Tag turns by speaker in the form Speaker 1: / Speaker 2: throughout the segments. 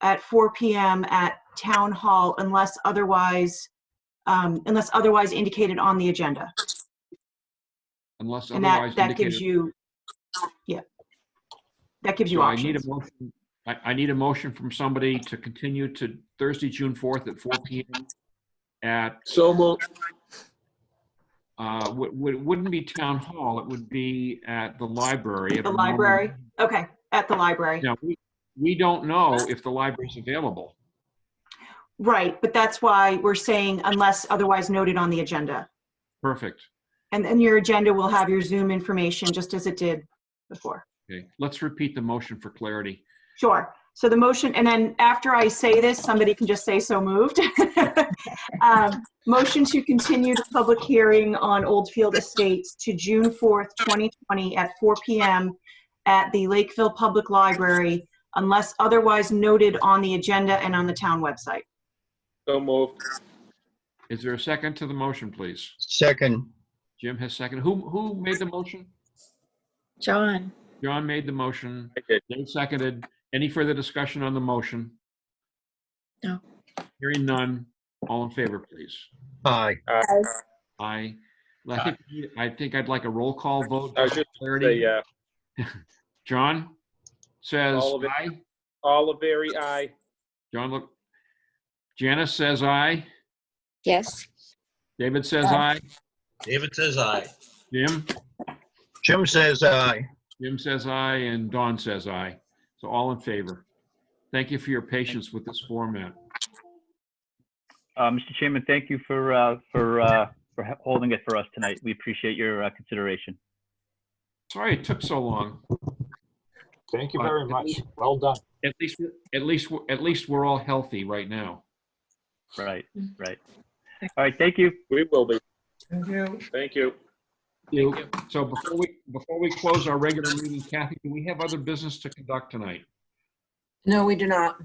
Speaker 1: at 4 PM at Town Hall unless otherwise, um, unless otherwise indicated on the agenda.
Speaker 2: unless
Speaker 1: And that,
Speaker 2: otherwise
Speaker 1: that gives
Speaker 2: indicated.
Speaker 1: you, yeah. That gives you
Speaker 2: So I need a
Speaker 1: options.
Speaker 2: motion, I, I need a motion from somebody to continue to Thursday, June 4th at 4 PM at,
Speaker 3: So moved.
Speaker 2: uh, would- would- wouldn't be Town Hall, it would be at the library. at
Speaker 1: The
Speaker 2: a normal-
Speaker 1: library? Okay, at the library.
Speaker 2: Now, we, we don't know if the library's available.
Speaker 1: Right, but that's why we're saying unless otherwise noted on the agenda.
Speaker 2: Perfect.
Speaker 1: And then your agenda will have your Zoom information, just as it did before.
Speaker 2: Okay, let's repeat the motion for clarity.
Speaker 1: Sure. So the motion, and then after I say this, somebody can just say so moved. Um, Motion to continue the public hearing on Oldfield Estates to June 4th, 2020 at 4 PM at the Lakeville Public Library unless otherwise noted on the agenda and on the town website.
Speaker 3: So moved.
Speaker 2: Is there a second to the motion, please?
Speaker 4: Second,
Speaker 2: Jim has second. Who, who made the motion?
Speaker 5: John,
Speaker 2: John made the motion.
Speaker 3: I did.
Speaker 2: Dave seconded. Any further discussion on the motion?
Speaker 5: No.
Speaker 2: Hearing none. All in favor, please.
Speaker 4: aye.
Speaker 2: Aye. Well, I think, I think I'd like a roll call vote.
Speaker 3: I was just gonna say, uh,
Speaker 2: Clarity.
Speaker 3: yeah.
Speaker 2: John says
Speaker 3: All of it.
Speaker 2: aye.
Speaker 3: Oliveri, aye.
Speaker 2: John, look. Janice says aye.
Speaker 5: yes.
Speaker 2: David says aye.
Speaker 6: David says aye.
Speaker 2: Jim?
Speaker 4: Jim says aye.
Speaker 2: Jim says aye and Don says aye. So all in favor. Thank you for your patience with this format.
Speaker 7: Uh, Mr. Chairman, thank you for, uh, for, uh, for he- holding it for us tonight. We appreciate your uh, consideration.
Speaker 2: Sorry it took so long.
Speaker 8: Thank you
Speaker 2: But
Speaker 8: very
Speaker 2: at
Speaker 8: much.
Speaker 2: least-
Speaker 8: Well done.
Speaker 2: At least, at least, we're- at least we're all healthy right now.
Speaker 7: Right, right. All right, thank you.
Speaker 3: We will be. Thank you.
Speaker 2: So before we, before we close our regular meeting, Kathy, do we have other business to conduct tonight?
Speaker 9: No, we do not.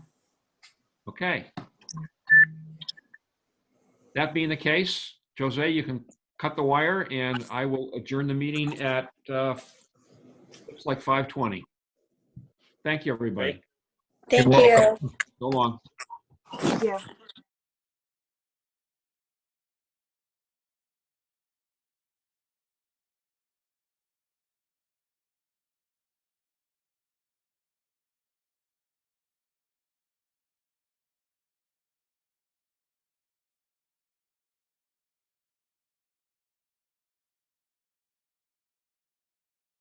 Speaker 2: Okay. That being the case, Jose, you can cut the wire and I will adjourn the meeting at, uh, looks like 5:20. Thank you, everybody.
Speaker 5: Thank
Speaker 4: welcome.
Speaker 5: you.
Speaker 2: So long.
Speaker 1: Yeah.